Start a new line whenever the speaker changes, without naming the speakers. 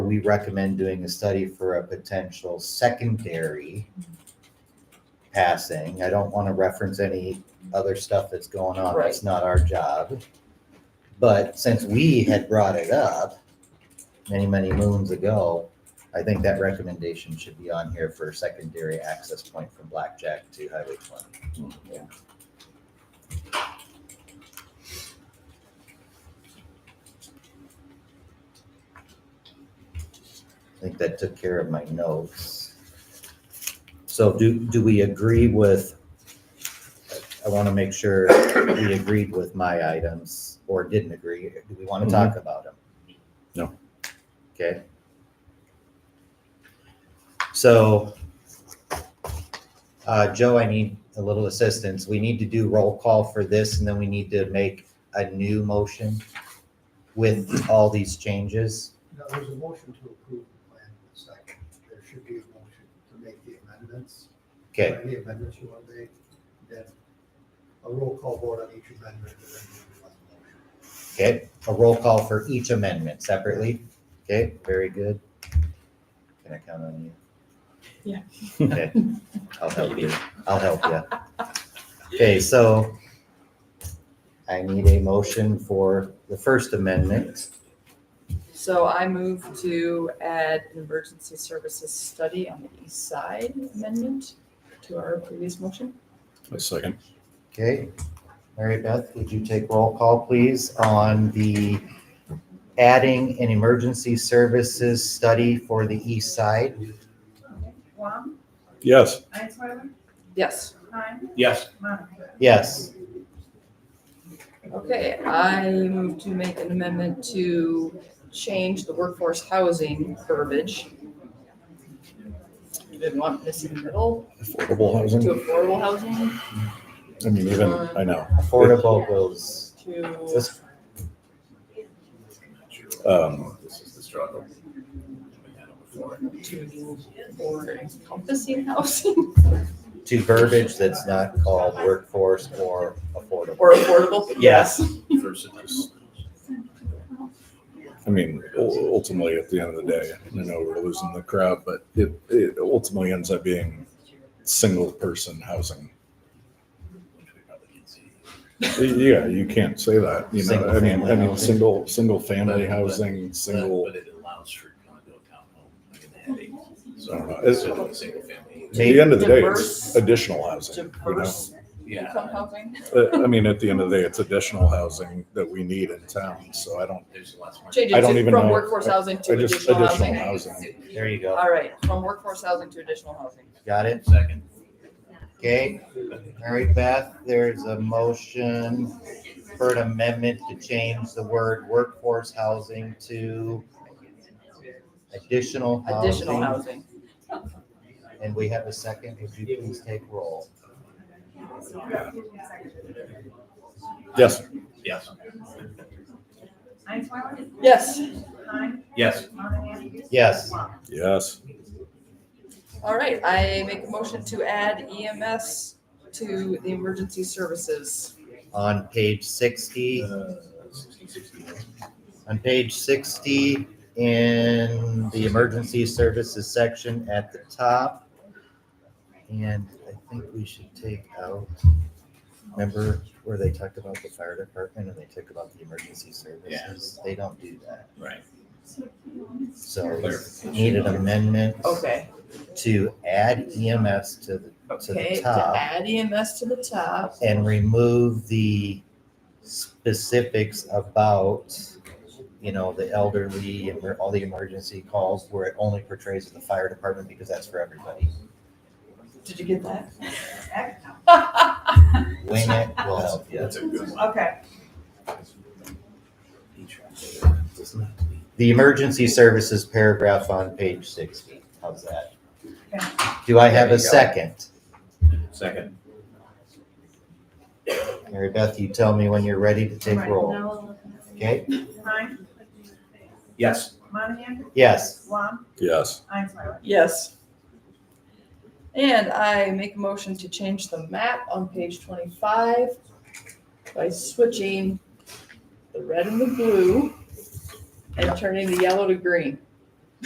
we recommend doing a study for a potential secondary passing. I don't want to reference any other stuff that's going on. That's not our job. But since we had brought it up many, many moons ago, I think that recommendation should be on here for secondary access point from Blackjack to Highway twenty. I think that took care of my notes. So do, do we agree with, I want to make sure we agreed with my items or didn't agree. Do we want to talk about them?
No.
Okay. So, uh, Joe, I need a little assistance. We need to do roll call for this and then we need to make a new motion with all these changes.
Now, there's a motion to approve the plan in a second. There should be a motion to make the amendments.
Okay,
Any amendments you want to make, then a roll call vote on each amendment, and then you want the motion.
okay, a roll call for each amendment separately. Okay, very good. Can I count on you?
Yeah.
Okay, I'll help you. I'll help you. Okay, so I need a motion for the First Amendment.
So I move to add an emergency services study on the east side amendment to our previous motion.
A second.
Okay, Mary Beth, would you take roll call, please, on the adding an emergency services study for the east side?
Wong,
Yes.
Einsweiler,
Yes,
Klein,
Yes.
Monahan.
Yes.
okay, I move to make an amendment to change the workforce housing verbiage. We Didn't want this in the middle
Affordable
to
housing.
affordable housing
I mean, even,
Uh-huh.
I know.
Affordable goes,
to,
this
Um,
This is the struggle.
to or encompassing housing
to verbiage that's not called workforce or affordable.
or affordable.
Yes.
Versus.
I mean, u- ultimately, at the end of the day, I know we're losing the crowd, but it, it ultimately ends up being single person housing. Yeah, you can't say that, you know, I mean, I
Single-family
mean,
housing.
single, single family housing, single,
But it allows for condo townhome, like in the headache.
I
Uh-huh.
don't know. It's-
So, it's a single family.
at the end of the day, it's
Diverse-
additional housing. you know?
Diverse income
Yeah,
housing.
Uh, I mean, at the end of the day, it's additional housing that we need in town, so I don't,
there's lots more.
Change
I
it
don't
to
even
from
know.
workforce housing to
I just-
additional
additional
housing.
housing.
There you go.
All right, from workforce housing to additional housing.
Got it?
Second.
Okay. All right, Beth, there's a motion for an amendment to change the word workforce housing to additional
Additional
housing.
housing.
And we have a second. Would you please take roll?
yes,
Yes.
Einsweiler,
Yes,
Klein,
Yes.
Monahan.
Yes.
Wong.
yes.
all right, I make a motion to add EMS to the emergency services.
On page sixty, on page sixty in the emergency services section at the top. And I think we should take out, remember where they talked about the fire department and they took about the emergency services? They don't do that.
Right.
So need an amendment
Okay,
to add EMS to the, to
okay,
the
to
top
add EMS to the top.
and remove the specifics about, you know, the elderly and where all the emergency calls where it only portrays the fire department because that's for everybody.
Did you get that?
Wing it, we'll help you.
That's a good one.
Okay,
The emergency services paragraph on page sixty, how's that?
Okay.
Do I have
There
a
you go.
second?
Second.
Mary Beth, you tell me when you're ready to take
Right.
roll, okay?
Klein,
Yes.
Monahan,
Yes,
Wong,
Yes.
Einsweiler.
Yes. And I make a motion to change the map on page twenty-five by switching the red and the blue and turning the yellow to green.